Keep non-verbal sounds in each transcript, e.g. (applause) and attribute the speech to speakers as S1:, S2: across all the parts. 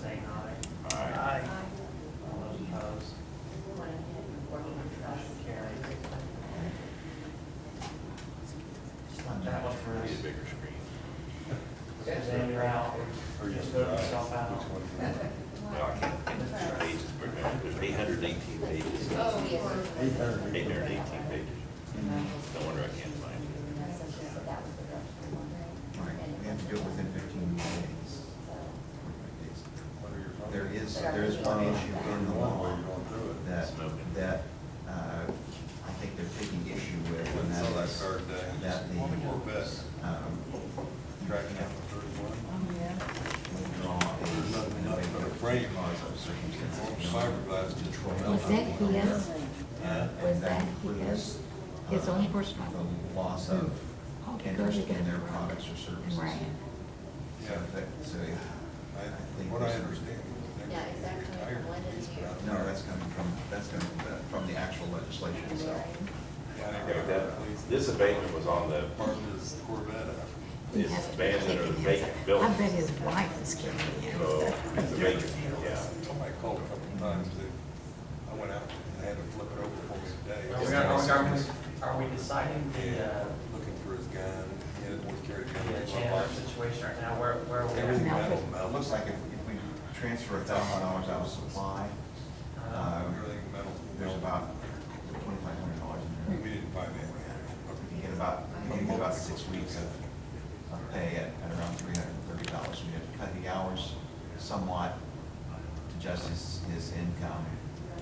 S1: saying aye.
S2: Aye.
S3: Aye.
S1: All those opposed? Motion carries. Just let that one for us.
S2: Need a bigger screen.
S1: This is Andrew out, or just vote yourself out. (laughs)
S2: No, I can't, think of the pages, we're gonna- there's eight hundred and eighteen pages,
S4: Oh, yes.
S5: Eight thirty.
S2: eight hundred and eighteen pages. No wonder I can't find it.
S4: So she said that was the first one,
S5: All right, we have to do it within fifteen days. There is, there is one issue in the law that, that, uh, I think they're taking issue with, and that is that the, um, you have to withdraw a. Cause of circumstances.
S6: Was that his? Was
S5: And- And that
S6: that
S5: includes.
S6: his, his
S5: uh,
S6: own personal?
S5: The loss of
S6: Oh, because
S5: interest
S6: he got
S5: in their
S6: drunk.
S5: products or services.
S6: Right.
S5: So that, so I think.
S7: What I
S5: there's-
S7: understand.
S4: Yeah, exactly. One and two.
S5: No, that's coming from, that's coming from the- from the actual legislation itself.
S2: Okay, with that, This abatement was on the,
S7: Partner's Corvette.
S6: He
S2: It's
S6: has to be
S2: abandoned or
S6: kicking
S2: vacant
S6: himself.
S2: building.
S6: I bet his wife is kicking him.
S2: oh, it's abatement, yeah.
S7: Somebody called a couple of times, they, I went out and had to flip it over for me
S1: Are
S7: today.
S1: Oh, we, are we, are we deciding the,
S7: Yeah,
S1: uh,
S7: looking for his gun, he had one carried
S1: the
S7: gun. in his
S1: Chandler
S7: pocket.
S1: situation right now, where, where are
S7: Everything
S1: we? at?
S7: metal,
S5: Now, it
S7: metal.
S5: uh, looks like if, if we transfer a thousand dollars out of supply,
S1: Uh,
S5: um,
S7: Everything metal.
S5: there's about twenty-five hundred dollars
S7: We
S5: in there.
S7: didn't buy that.
S5: We can get about, we can get about six weeks of, of pay at, at around three hundred and thirty dollars. We have to cut the hours somewhat to adjust his, his income,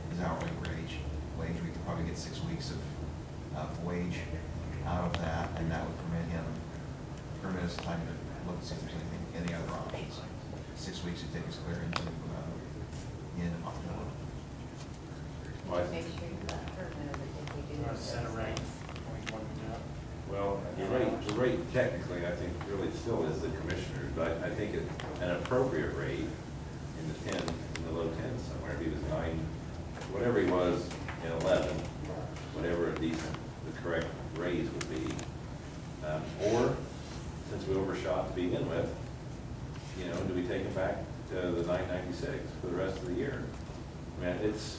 S5: his hourly wage. Wage, we could probably get six weeks of, of wage out of that, and that would permit him, permit us time to look and see if there's anything, any other options. Six weeks would take us clear into, uh, the end of October.
S2: Well,
S4: Make
S2: I-
S4: sure you let her know that if we
S1: You
S4: do.
S1: want to set a rate? What do you want to do?
S2: Well, the rate, the rate technically, I think, really still is the commissioner's, but I think it- an appropriate rate in the ten, in the low tens somewhere, if he was nine, whatever he was in eleven, whatever a decent, the correct raise would be. Um, Or, since we overshot to begin with, you know, do we take him back to the nine ninety-six for the rest of the year? I mean, it's,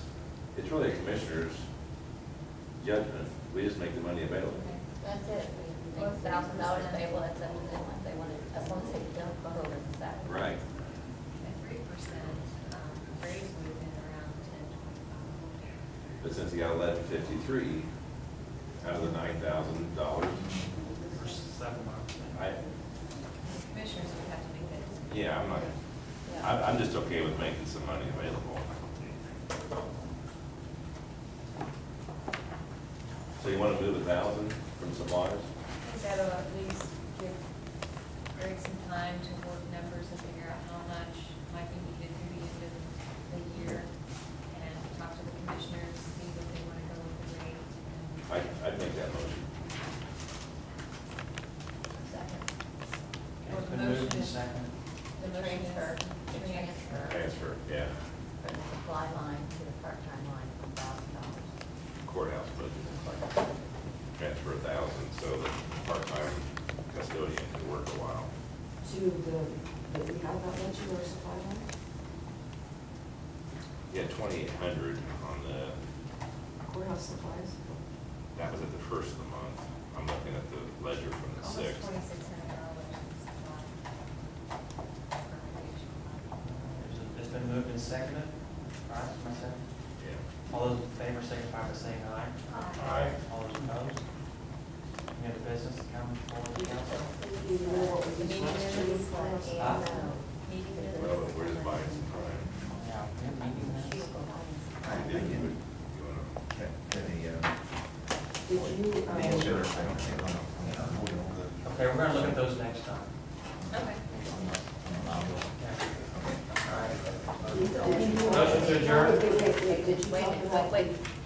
S2: it's really a commissioner's judgment, we just make the money available.
S4: That's it. One thousand dollars payable, that's up to them if they want it, as long as they don't go over the salary.
S2: Right.
S8: three percent raise would have been around ten twenty-five.
S2: But since he got eleven fifty-three out of the nine thousand dollars,
S1: For seven months.
S2: I,
S8: Commissioners would have to make that decision.
S2: yeah, I'm not,
S4: Yeah.
S2: I'm, I'm just okay with making some money available. So you wanna move a thousand from suppliers?
S8: I think that'll at least give Greg some time to work numbers and figure out how much might be needed through the end of the year. And talk to the commissioners, see if they want to go with the rate.
S2: I, I'd make that motion.
S4: Second.
S1: Okay, It's been moved and seconded.
S4: The transfer. Transfer.
S2: Transfer, yeah,
S4: From the supply line to the part-time line, one thousand dollars.
S2: courthouse budget, it's like, transfer a thousand, so the part-time custodian could work a while.
S9: to the, that we have not mentioned our supply line?
S2: Yeah, twenty-eight hundred on the
S9: Courthouse supplies?
S2: That was at the first of the month. I'm looking at the ledger from the
S8: Almost
S2: sixth.
S8: twenty-six hundred dollars in supply. for recreation fund.
S1: There's a- It's been moved and seconded. All right, my second.
S2: Yeah.
S1: All those in favor signify by saying aye.
S2: Aye.
S1: All those opposed? Any other business to come before the council?
S9: Do you know what we
S4: Meeting
S9: used to
S4: minutes,
S9: do
S4: like,
S9: courthouse?
S1: Ah.
S4: and, uh, meeting minutes.
S2: Well, we're just buying some
S1: Yeah, we have meeting
S4: She
S1: minutes.
S4: will go on.
S5: I,
S2: time.
S5: I
S2: You did, you would- you
S5: didn't
S2: wanna-
S5: get the, uh,
S9: Did you, um,
S5: answer, I don't think, on, on, on,
S1: Okay, we're gonna look at those next time. Yeah.
S8: Okay.
S9: did you-
S1: Motion to adjourn.
S9: Wait, wait, wait, did you
S4: Wait, a
S9: talk
S4: minute,
S9: about
S4: wait, wait,